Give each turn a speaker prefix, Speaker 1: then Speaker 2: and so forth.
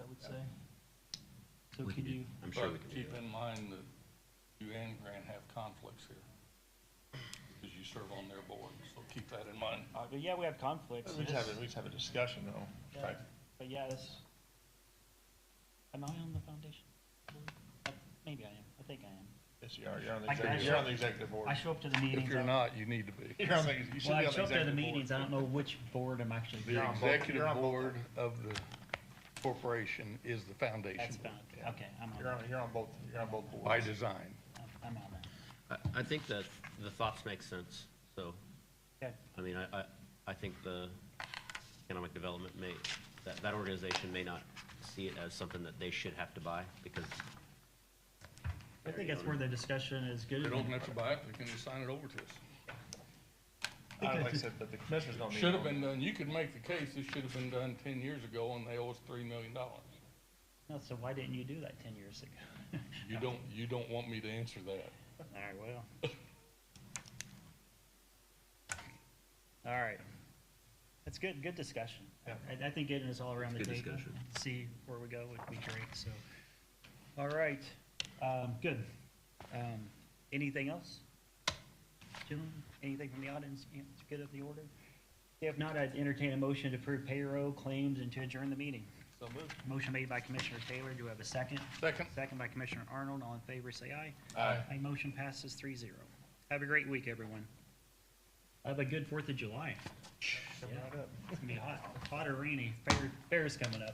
Speaker 1: So
Speaker 2: We
Speaker 1: can
Speaker 2: can-
Speaker 1: you,
Speaker 2: I'm sure we
Speaker 3: But
Speaker 2: can do
Speaker 3: keep
Speaker 2: that.
Speaker 3: in mind that you and Grant have conflicts here, because you serve on their board, so keep that in mind.
Speaker 1: uh, but yeah, we have conflicts.
Speaker 4: We
Speaker 1: It
Speaker 4: just have,
Speaker 1: is-
Speaker 4: a- we just have a discussion though.
Speaker 1: yeah,
Speaker 3: Right.
Speaker 1: But yeah, this, am I on the foundation? board? Uh, Maybe I am. I think I am.
Speaker 4: Yes, you are, you're on the
Speaker 1: I can-
Speaker 4: executive, you're on the executive board.
Speaker 1: I show up to the meetings.
Speaker 3: If you're
Speaker 1: I-
Speaker 3: not, you need to be.
Speaker 4: You're on the, you should be
Speaker 1: Well,
Speaker 4: on the
Speaker 1: I show
Speaker 4: executive
Speaker 1: up to the
Speaker 4: board.
Speaker 1: meetings. I don't know which board I'm actually.
Speaker 3: The
Speaker 4: on both- you're
Speaker 3: executive
Speaker 4: on both.
Speaker 3: board of the corporation is the
Speaker 1: That's
Speaker 3: foundation
Speaker 1: fine.
Speaker 3: board,
Speaker 1: Okay, I'm on
Speaker 4: You're on,
Speaker 1: that.
Speaker 4: you're on both, you're on both
Speaker 3: by
Speaker 4: boards.
Speaker 3: design.
Speaker 1: I'm- I'm on that.
Speaker 2: I, I think that the thoughts make sense, so,
Speaker 1: Okay.
Speaker 2: I mean, I, I, I think the economic development may, that, that organization may not see it as something that they should have to buy, because
Speaker 1: I think that's where the discussion is good.
Speaker 3: They don't have to buy it, they can just sign it over to us.
Speaker 4: I Uh, like I said, but the commissioners don't need.
Speaker 3: Should have
Speaker 4: one.
Speaker 3: been done, you could make the case, this should have been done ten years ago, and they owe us three million dollars.
Speaker 1: No, so why didn't you do that ten years ago?
Speaker 3: You don't, you don't want me to answer that.
Speaker 1: All right, well. All right. That's good, good discussion.
Speaker 4: Yeah.
Speaker 1: I, I think getting us all around the
Speaker 2: It's good
Speaker 1: table,
Speaker 2: discussion.
Speaker 1: see where we go would be great, so. All right, um, good. Um, anything else? Gentlemen, anything from the audience, Yeah, it's good of the order? If not, I'd entertain a motion to approve payroll claims and to adjourn the meeting.
Speaker 3: So moved.
Speaker 1: Motion made by Commissioner Taylor, do we have a second?
Speaker 3: Second.
Speaker 1: Second by Commissioner Arnold, all in favor, say aye.
Speaker 3: Aye.
Speaker 1: My motion passes 3-0. Have a great week, everyone. Have a good Fourth of July. Yeah, It's gonna be hot, hot or rainy, fair, fair's coming up.